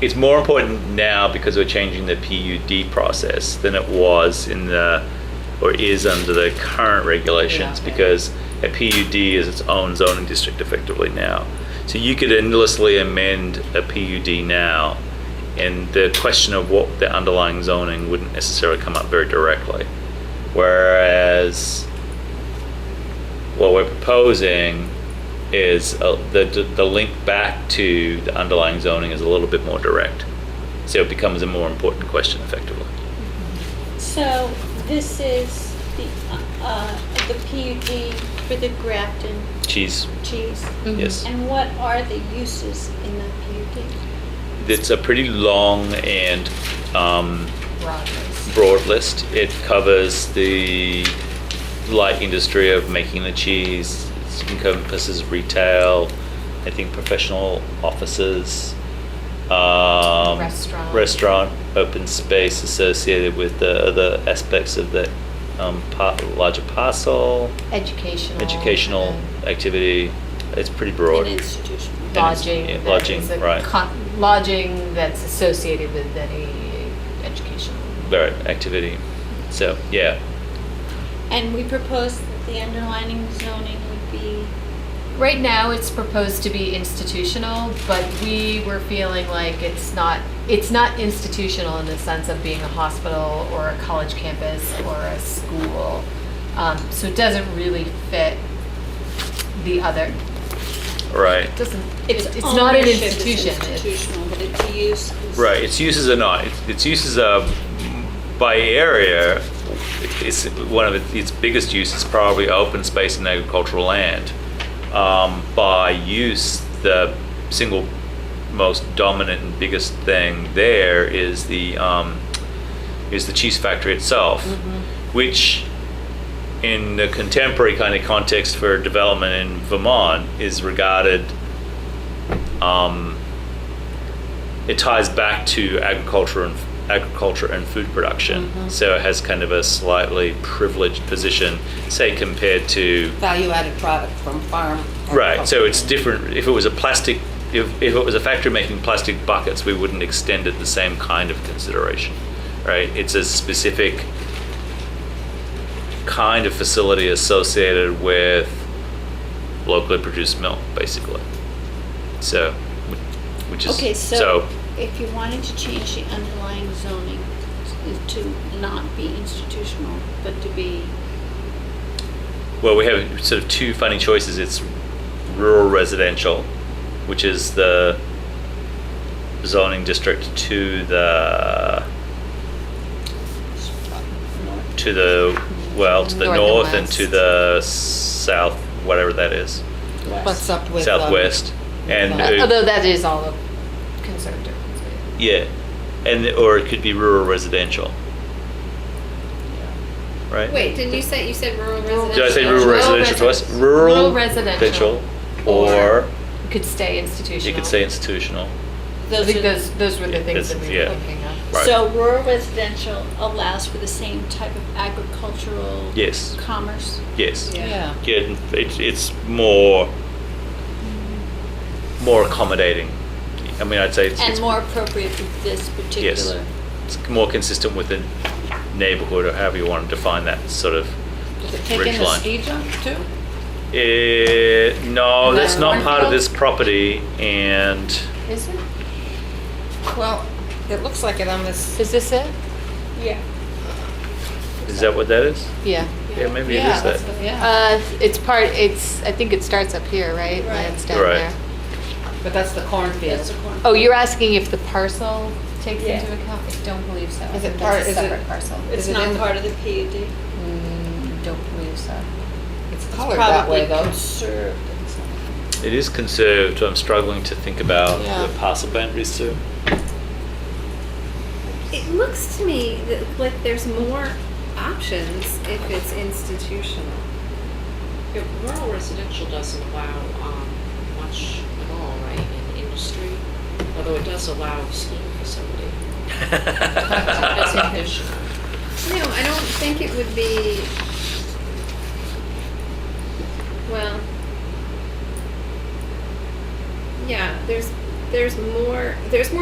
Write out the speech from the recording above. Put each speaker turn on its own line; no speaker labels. it's more important now because we're changing the PUD process than it was in the, or is under the current regulations,
Yeah.
because a PUD is its own zoning district effectively now. So you could endlessly amend a PUD now, and the question of what the underlying zoning wouldn't necessarily come up very directly. Whereas what we're proposing is uh, the, the link back to the underlying zoning is a little bit more direct. So it becomes a more important question effectively.
So this is the, uh, the PUD for the Grafton
Cheese,
cheese?
Mhm.
yes.
And what are the uses in the PUD?
It's a pretty long and um,
Rogers.
broad list. It covers the light industry of making the cheese, it encompasses retail, I think professional offices, um,
Restaurant.
restaurant, open space associated with the other aspects of the um, par- larger parcel,
Educational.
educational
and
activity. It's pretty broad.
An institutional.
it's-
Lodging.
yeah,
that
lodging,
is a
right.
con- Lodging that's associated with any educational.
Right, activity. So, yeah.
And we propose that the underlining zoning would be,
Right now, it's proposed to be institutional, but we were feeling like it's not, it's not institutional in the sense of being a hospital or a college campus or a school. Um, So it doesn't really fit the other,
Right.
it doesn't, it's,
its
it's not an
ownership is
institution. It's-
Institutional, but its use is.
Right, its uses are not, its- its uses are by area, it's one of its- its biggest uses probably open space and agricultural land. Um, By use, the single most dominant and biggest thing there is the, um, is the cheese factory itself, which in the contemporary kind of context for development in Vermont is regarded um, it ties back to agriculture and agriculture and food production.
Mm-hmm.
So it has kind of a slightly privileged position, say compared to
value-added product from farm.
right. So it's different. If it was a plastic, if, if it was a factory making plastic buckets, we wouldn't extend it the same kind of consideration, right? It's a specific kind of facility associated with locally produced milk, basically. So, wh- which is
Okay, so if you wanted to change the underlying zoning to not be institutional, but to be,
Well, we have sort of two funny choices. It's rural residential, which is the zoning district to the to the well to the
North and
north and
west.
to the south, whatever that is,
What's up with? um,
southwest, and
Uh,
Although that is all a conservative. conservative.
yeah, and or it could be rural residential, right?
Wait, didn't you say, you said rural residential?
Did I say rural
Rural
residential twice?
resi-
Rural
rural residential.
residential, or
It Could stay institutional.
you could say institutional.
I
those
think
are,
those, those were the things
This-
that we
yeah.
were looking at.
Right.
so rural residential allows for the same type of agricultural
Yes.
commerce?
Yes.
Yeah.
Yeah, it's, it's more more accommodating. I mean, I'd say it's,
And
it's,
more appropriate for this
yes,
particular,
it's more consistent with the neighborhood or however you want to define that sort of
Does it take
ridge
in the
line.
ski jump too?
Eh, no, that's
No.
not part of this property, and
Is it?
Well, it looks like it on this.
Is this it?
yeah.
is that what that is?
Yeah.
Yeah, maybe it
Yeah,
is
that's
that.
what- yeah,
Uh, it's part, it's, I think it starts up here, right? And then it's down
Right.
there.
but that's the cornfield.
That's the corn.
Oh, you're asking if the parcel takes
Yeah.
into account? I don't believe so. I
Is
think
it
that's
part-
a
is it-
separate parcel.
It's
is it in
not
the-
part of the PUD.
Mm, Don't believe so.
It's
It's
colored that way
Probably
though.
conserved.
It is conserved. I'm struggling to think about
Yeah.
the parcel boundaries too.
It looks to me that, like there's more options if it's institutional.
Yeah, rural residential doesn't allow um, much at all, right, in industry, although it does allow a skiing facility. That's additional.
No, I don't think it would be, well, yeah, there's, there's more, there's more